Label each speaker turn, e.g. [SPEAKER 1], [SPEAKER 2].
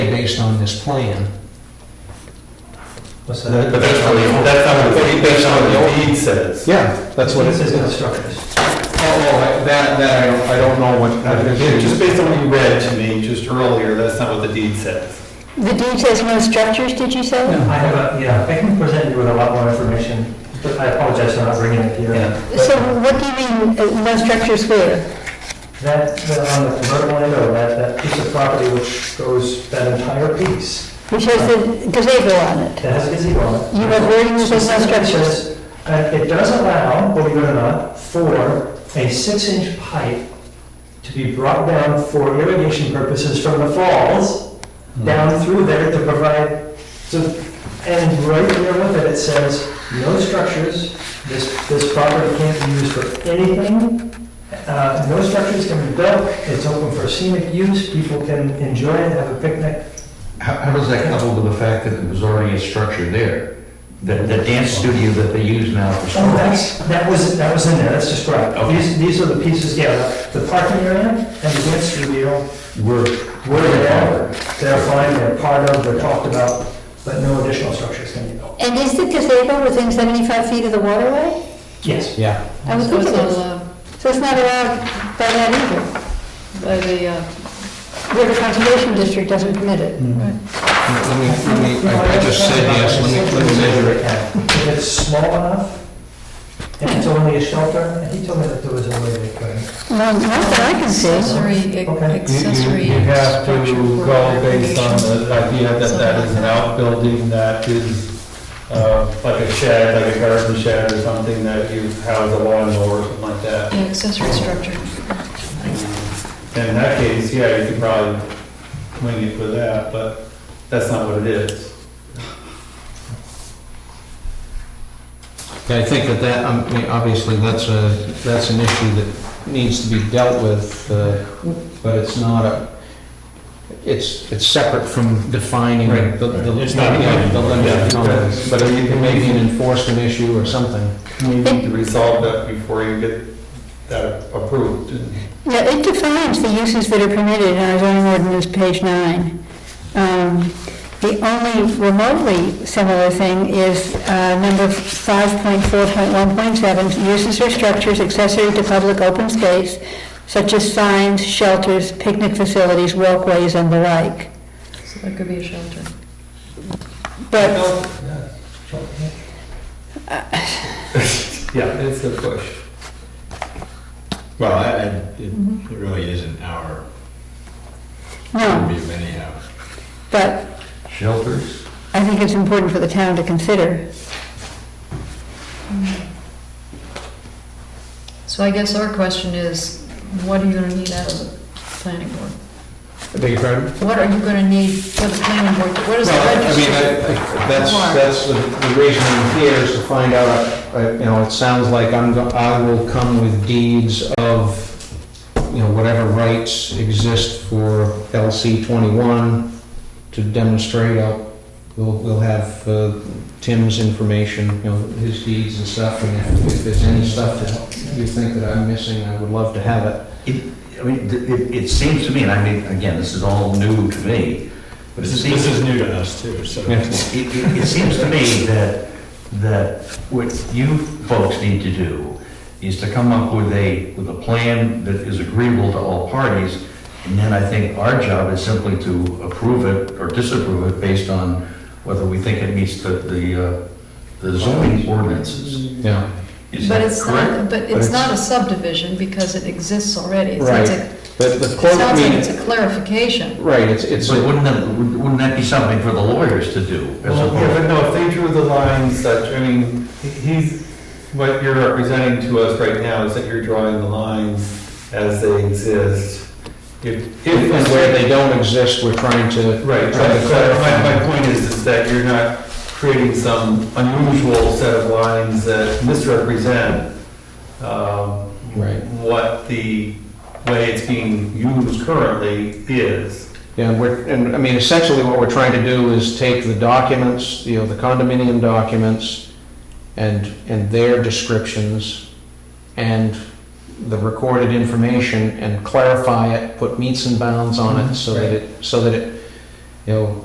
[SPEAKER 1] based on this plan.
[SPEAKER 2] What's
[SPEAKER 3] But
[SPEAKER 2] that?
[SPEAKER 3] that's how the, that's how the, that's how the deed says.
[SPEAKER 4] Yeah, that's what it
[SPEAKER 2] This
[SPEAKER 4] is.
[SPEAKER 2] is
[SPEAKER 4] Oh,
[SPEAKER 2] not structures.
[SPEAKER 4] oh, I- that, that, I don't, I don't know what, I didn't
[SPEAKER 3] Again,
[SPEAKER 4] hear
[SPEAKER 3] just
[SPEAKER 4] you.
[SPEAKER 3] based on what you read to me just earlier, that's not what the deed says.
[SPEAKER 5] The deed says no structures, did you say?
[SPEAKER 2] I have a, yeah, I can present you with a lot more information, but I apologize for not bringing it here.
[SPEAKER 5] So what do you mean, uh, no structures where?
[SPEAKER 2] That, that on the convertible window, that, that piece of property which goes, that entire piece,
[SPEAKER 5] Which has the gazebo on it.
[SPEAKER 2] that has a gazebo on it.
[SPEAKER 5] You have wording that says no
[SPEAKER 2] Specifically
[SPEAKER 5] structures.
[SPEAKER 2] says, uh, It does allow, believe it or not, for a six-inch pipe to be brought down for irrigation purposes from the falls down through there to provide, so, and right there with it, it says, no structures, this, this property can't be used for anything, uh, no structures can be built, it's open for scenic use, people can enjoy it, have a picnic.
[SPEAKER 6] How, how does that couple with the fact that there was already a structure there? The, the dance studio that they use now for
[SPEAKER 2] Oh,
[SPEAKER 6] sports?
[SPEAKER 2] that's, that was, that was in there, that's described. These, these are the pieces, yeah, the parking area and the dance studio
[SPEAKER 6] Were,
[SPEAKER 2] were there. They're fine, they're part of, they're talked about, but no additional structures can be built.
[SPEAKER 5] And is the gazebo within 75 feet of the waterway?
[SPEAKER 2] Yes.
[SPEAKER 4] Yeah.
[SPEAKER 5] I would
[SPEAKER 7] So
[SPEAKER 5] think
[SPEAKER 7] it's uh,
[SPEAKER 5] it
[SPEAKER 7] not
[SPEAKER 5] is.
[SPEAKER 7] allowed
[SPEAKER 5] So it's not allowed by that either.
[SPEAKER 7] by the, uh,
[SPEAKER 5] River Conservation District doesn't permit it.
[SPEAKER 7] Mm-hmm.
[SPEAKER 1] Let me, let me, I I just said yes, let me, let me measure it.
[SPEAKER 2] If it's small enough, and it's only a shelter, and he told me that there was a way they could.
[SPEAKER 5] No, not that I can see.
[SPEAKER 7] accessory,
[SPEAKER 2] Okay.
[SPEAKER 4] You- You,
[SPEAKER 7] accessory.
[SPEAKER 4] you have to
[SPEAKER 7] structure for
[SPEAKER 4] go based on
[SPEAKER 7] irrigation.
[SPEAKER 4] the idea that that is an outbuilding that is, uh, like a shed, like a garden shed or something that you house a lawnmower or something like that.
[SPEAKER 7] Yeah, accessory structure.
[SPEAKER 4] And in that case, yeah, you could probably wing it with that, but that's not what it is.
[SPEAKER 1] Yeah, I think that that, um, I mean, obviously, that's a, that's an issue that needs to be dealt with, uh, but it's not a, it's, it's separate from defining
[SPEAKER 4] Right,
[SPEAKER 1] the, the,
[SPEAKER 4] It's not-
[SPEAKER 1] yeah, the limit.
[SPEAKER 4] Yeah.
[SPEAKER 1] But it may be an enforcement issue or something.
[SPEAKER 4] We need to resolve that before you get that approved.
[SPEAKER 5] Yeah, it defines the uses that are permitted in our zoning ordinance, page nine. Um, The only remotely similar thing is uh, number 5.4.1.7, uses or structures accessory to public open space, such as signs, shelters, picnic facilities, walkways, and the like.
[SPEAKER 7] So that could be a shelter.
[SPEAKER 5] But
[SPEAKER 4] Yeah, it's a push.
[SPEAKER 8] Well, I, I, it it really isn't our
[SPEAKER 5] No,
[SPEAKER 8] view anyhow.
[SPEAKER 5] but
[SPEAKER 6] Shelters?
[SPEAKER 5] I think it's important for the town to consider.
[SPEAKER 7] So I guess our question is, what are you gonna need out of the planning board?
[SPEAKER 1] Beg your pardon?
[SPEAKER 7] What are you gonna need for the planning board? What is the
[SPEAKER 1] Well, I mean,
[SPEAKER 7] registry?
[SPEAKER 1] I- I- that's,
[SPEAKER 7] Why?
[SPEAKER 1] that's the the reason I'm here is to find out, uh, uh, you know, it sounds like I'm, go- I will come with deeds of, you know, whatever rights exist for LC 21 to demonstrate. I'll- We'll, we'll have uh, Tim's information, you know, his deeds and stuff, and if- if there's any stuff that you think that I'm missing, I would love to have it.
[SPEAKER 6] It, I mean, th- it, it seems to me, and I mean, again, this is all new to me, but it
[SPEAKER 8] This
[SPEAKER 6] seems,
[SPEAKER 8] this is
[SPEAKER 6] it,
[SPEAKER 8] new to us too, so.
[SPEAKER 6] it, it seems to me that, that what you folks need to do is to come up with a, with a plan that is agreeable to all parties, and then I think our job is simply to approve it or disapprove it based on whether we think it meets the, the, uh, the zoning ordinances.
[SPEAKER 1] Yeah.
[SPEAKER 6] Is
[SPEAKER 7] But
[SPEAKER 6] that
[SPEAKER 7] it's
[SPEAKER 6] correct?
[SPEAKER 7] not, but it's not a subdivision because it exists already. So
[SPEAKER 1] Right.
[SPEAKER 7] it's a-
[SPEAKER 1] But the
[SPEAKER 7] It
[SPEAKER 1] quote, I
[SPEAKER 7] sounds like it's
[SPEAKER 1] mean,
[SPEAKER 7] a clarification.
[SPEAKER 1] right, it's, it's.
[SPEAKER 6] So wouldn't that, wouldn't that be something for the lawyers to do? as
[SPEAKER 4] Well,
[SPEAKER 6] opposed-
[SPEAKER 4] yeah, but no, if they drew the line such, I mean, he- he's, what you're representing to us right now is that you're drawing the lines as they exist.
[SPEAKER 1] If
[SPEAKER 4] If,
[SPEAKER 1] and
[SPEAKER 4] if-
[SPEAKER 1] where they don't exist, we're trying to.
[SPEAKER 4] Right,
[SPEAKER 1] trying to
[SPEAKER 4] so my,
[SPEAKER 1] clarify.
[SPEAKER 4] my point is, is that you're not creating some unusual set of lines that misrepresent, um,
[SPEAKER 1] Right.
[SPEAKER 4] what the way it's being used currently is.
[SPEAKER 1] Yeah, we're, and I mean, essentially what we're trying to do is take the documents, you know, the condominium documents and, and their descriptions and the recorded
[SPEAKER 4] Mm-hmm.
[SPEAKER 1] information and clarify it, put meets and bounds on it so that it, so that it, you know,